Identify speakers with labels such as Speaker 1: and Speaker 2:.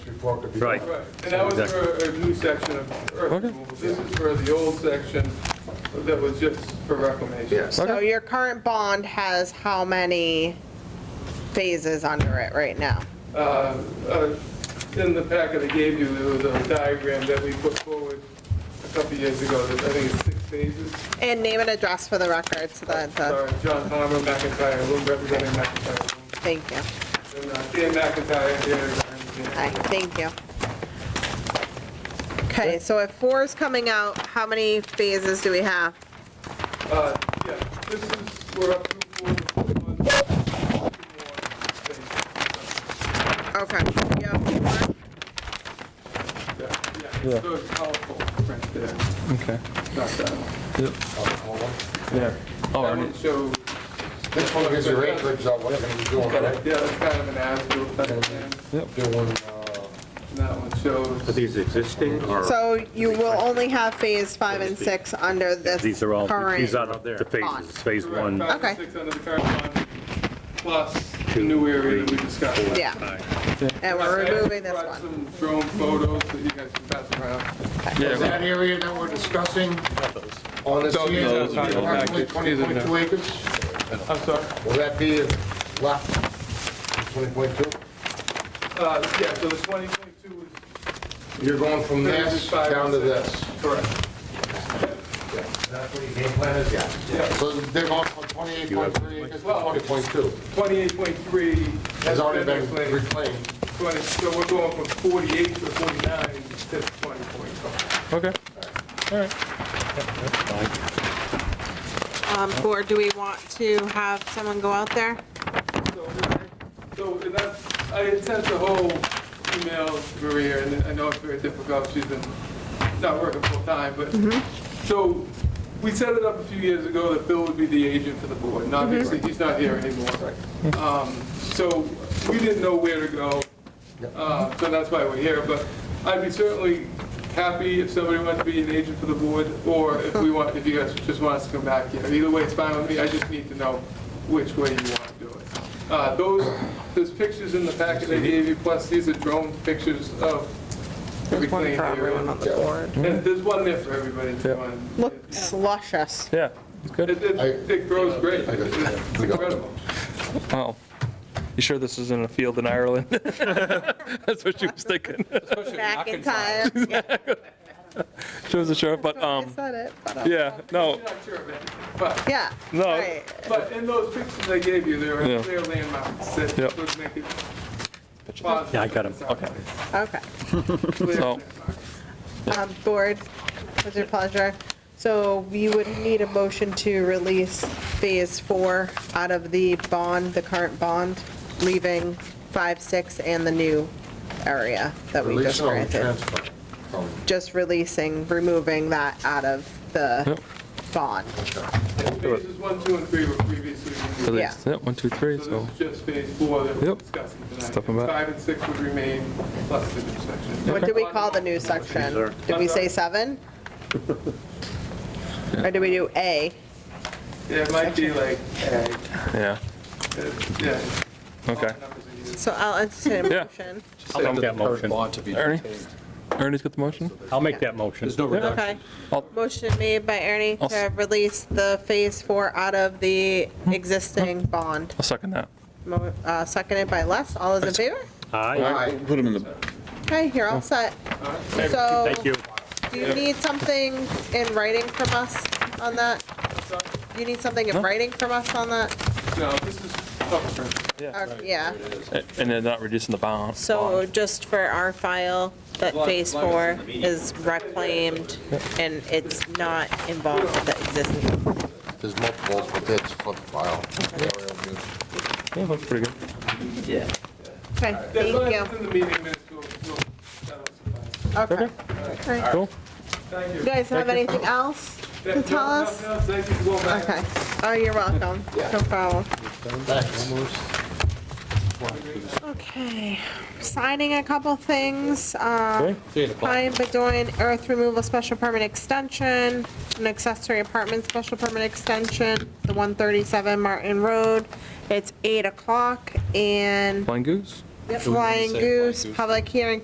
Speaker 1: before it could be.
Speaker 2: Right.
Speaker 1: done.
Speaker 3: Right, and that was for a new section of earth removal. This is for the old section that was just for reclamation.
Speaker 1: Yes,
Speaker 4: So your current bond has how many phases under it right now?
Speaker 3: Uh, uh, In the packet I gave you, there was a diagram that we put forward a couple years ago, that I think it's six phases.
Speaker 4: And name and address for the record so that, the-
Speaker 3: Sorry, John Palmer, McIntyre, Loom representing McIntyre. Loom.
Speaker 4: thank you.
Speaker 3: And uh, Dan McIntyre here. is our engineer.
Speaker 4: Hi, thank you. Okay, so if four is coming out, how many phases do we have?
Speaker 3: Uh, Yeah, this is, we're up to four, one, two more phases.
Speaker 4: Okay, you have four.
Speaker 3: Yeah, yeah, so it's colorful print there,
Speaker 5: Okay.
Speaker 3: not that one.
Speaker 1: Oh, hold on.
Speaker 5: Yeah. Oh,
Speaker 3: That
Speaker 5: already.
Speaker 3: one shows,
Speaker 1: This one gives you acreage of what you're gonna be doing, right?
Speaker 3: yeah, that's kind of an as-built type of thing,
Speaker 1: Doing, uh,
Speaker 3: and that one
Speaker 2: Are
Speaker 3: shows,
Speaker 2: these existing or?
Speaker 4: So you will only have phase five and six under this
Speaker 2: These are all, these are
Speaker 4: current.
Speaker 2: the the
Speaker 4: Bond.
Speaker 2: phases, phase
Speaker 3: correct,
Speaker 2: one.
Speaker 3: five
Speaker 4: Okay.
Speaker 3: and six under the current one, plus the new area that we discussed.
Speaker 4: Yeah, and we're removing this
Speaker 3: I brought
Speaker 4: one.
Speaker 3: some drone photos that you guys can pass around.
Speaker 1: Is that area that we're discussing on this here,
Speaker 5: those are the old
Speaker 1: approximately 20.2 acres?
Speaker 3: I'm sorry,
Speaker 1: Will that be left, 20.2?
Speaker 3: uh, yeah, so the 2022 is
Speaker 1: You're going from this down to this?
Speaker 3: correct,
Speaker 1: Yeah. That's what your game plan is, yeah.
Speaker 3: Yeah.
Speaker 1: So they're going from 28.3 acres to
Speaker 3: Well-
Speaker 1: 20.2.
Speaker 3: 28.3
Speaker 1: Has already been
Speaker 3: reclaimed.
Speaker 1: reclaimed.
Speaker 3: 20, so we're going from 48 to 49 to 20 point.
Speaker 5: Okay. All right.
Speaker 4: Um, Or do we want to have someone go out there?
Speaker 3: So, so, and that's, I had sent the whole email to Maria, and I know it's very difficult, she's been not working full-time, but, so, we set it up a few years ago that Bill would be the agent for the board, and obviously, he's not here anymore. Um, So, we didn't know where to go, uh, so that's why we're here, but I'd be certainly happy if somebody wants to be an agent for the board, or if we want, if you guys just want us to come back here. Either way, it's fine with me, I just need to know which way you want to do it. Uh, Those, there's pictures in the packet I gave you, plus these are drone pictures of
Speaker 4: There's one
Speaker 3: reclaimed
Speaker 4: for everyone
Speaker 3: area.
Speaker 4: on the board.
Speaker 3: And there's one there for everybody. if you want.
Speaker 4: Looks luscious.
Speaker 5: Yeah. It's good.
Speaker 3: It, it- it grows great.
Speaker 1: I got it.
Speaker 3: It's incredible.
Speaker 5: Oh. You sure this isn't a field in Ireland? That's what she was thinking.
Speaker 4: Back in time.
Speaker 5: She wasn't sure, but,
Speaker 4: I
Speaker 5: um,
Speaker 4: said it, but, uh,
Speaker 5: yeah,
Speaker 3: I'm
Speaker 5: no,
Speaker 3: not sure of it, but,
Speaker 4: Yeah.
Speaker 5: No.
Speaker 4: right.
Speaker 3: but in those pictures I gave you, there
Speaker 5: Yeah.
Speaker 3: are clear landmarks that
Speaker 5: Yep.
Speaker 3: would make it
Speaker 2: Yeah, I got 'em.
Speaker 3: Okay.
Speaker 4: Okay.
Speaker 3: Clear
Speaker 5: So-
Speaker 3: landmarks.
Speaker 4: Um, Board, with your pleasure. So we would need a motion to release Phase 4 out of the bond, the current bond, leaving 5, 6, and the new area that we
Speaker 1: Release
Speaker 4: just
Speaker 1: on
Speaker 4: granted.
Speaker 1: transfer. Um,
Speaker 4: Just releasing, removing that out of the bond.
Speaker 3: Phases one, two, and three were previously reviewed.
Speaker 4: Yeah.
Speaker 5: yeah, one, two, three,
Speaker 3: So
Speaker 5: so,
Speaker 3: this is just phase four that we're
Speaker 5: Yep.
Speaker 3: discussing tonight.
Speaker 5: Step them back.
Speaker 3: Five and six would remain plus the new section.
Speaker 4: What did we call the new section? Did we say 7? Or did we do A?
Speaker 3: Yeah, it might be like, ag,
Speaker 5: yeah,
Speaker 3: uh, yeah.
Speaker 5: okay.
Speaker 3: numbers are used.
Speaker 4: So I'll entertain a
Speaker 5: Yeah.
Speaker 4: motion.
Speaker 2: I'll make that motion.
Speaker 5: Ernie? Ernie's got the motion?
Speaker 2: I'll make that motion.
Speaker 4: Okay.
Speaker 5: I'll-
Speaker 4: Motion made by Ernie
Speaker 5: I'll
Speaker 4: to
Speaker 5: s-
Speaker 4: release the Phase 4 out of the existing bond,
Speaker 5: I'll second that.
Speaker 4: Mo- uh, seconded by Les. All those in favor?
Speaker 2: Aye,
Speaker 1: Aye.
Speaker 6: Put them in the,
Speaker 4: Okay, you're
Speaker 5: Oh.
Speaker 4: all set. So,
Speaker 2: thank you.
Speaker 4: do you need something in writing from us on that?
Speaker 3: So,
Speaker 4: Do you need something in
Speaker 5: No.
Speaker 4: writing from us on that?
Speaker 3: No, this is oh, upfront.
Speaker 4: Or- Yeah,
Speaker 5: A- And then not reducing the bound.
Speaker 4: so just for our file, that Phase 4 is reclaimed, and it's not involved with the existing.
Speaker 1: There's multiples, but that's for the file. Aerial views.
Speaker 5: Yeah, looks pretty good.
Speaker 4: Okay,
Speaker 3: That's why
Speaker 4: thank
Speaker 3: it's
Speaker 4: you.
Speaker 3: in the meeting minutes, we'll, we'll, that'll suffice.
Speaker 4: Okay. All right.
Speaker 5: Cool.
Speaker 3: Thank you.
Speaker 4: You guys have anything else to
Speaker 3: No,
Speaker 4: tell
Speaker 3: no,
Speaker 4: us?
Speaker 3: no, Thank you, go back.
Speaker 4: Okay. Oh, you're welcome. No problem. Okay. Signing a couple things. um, Pine Bedoin Earth Removal Special Permit Extension, an accessory apartment special permit extension, the 137 Martin Road. It's 8 o'clock and
Speaker 5: Flying goose?
Speaker 4: Flying Goose, public hearing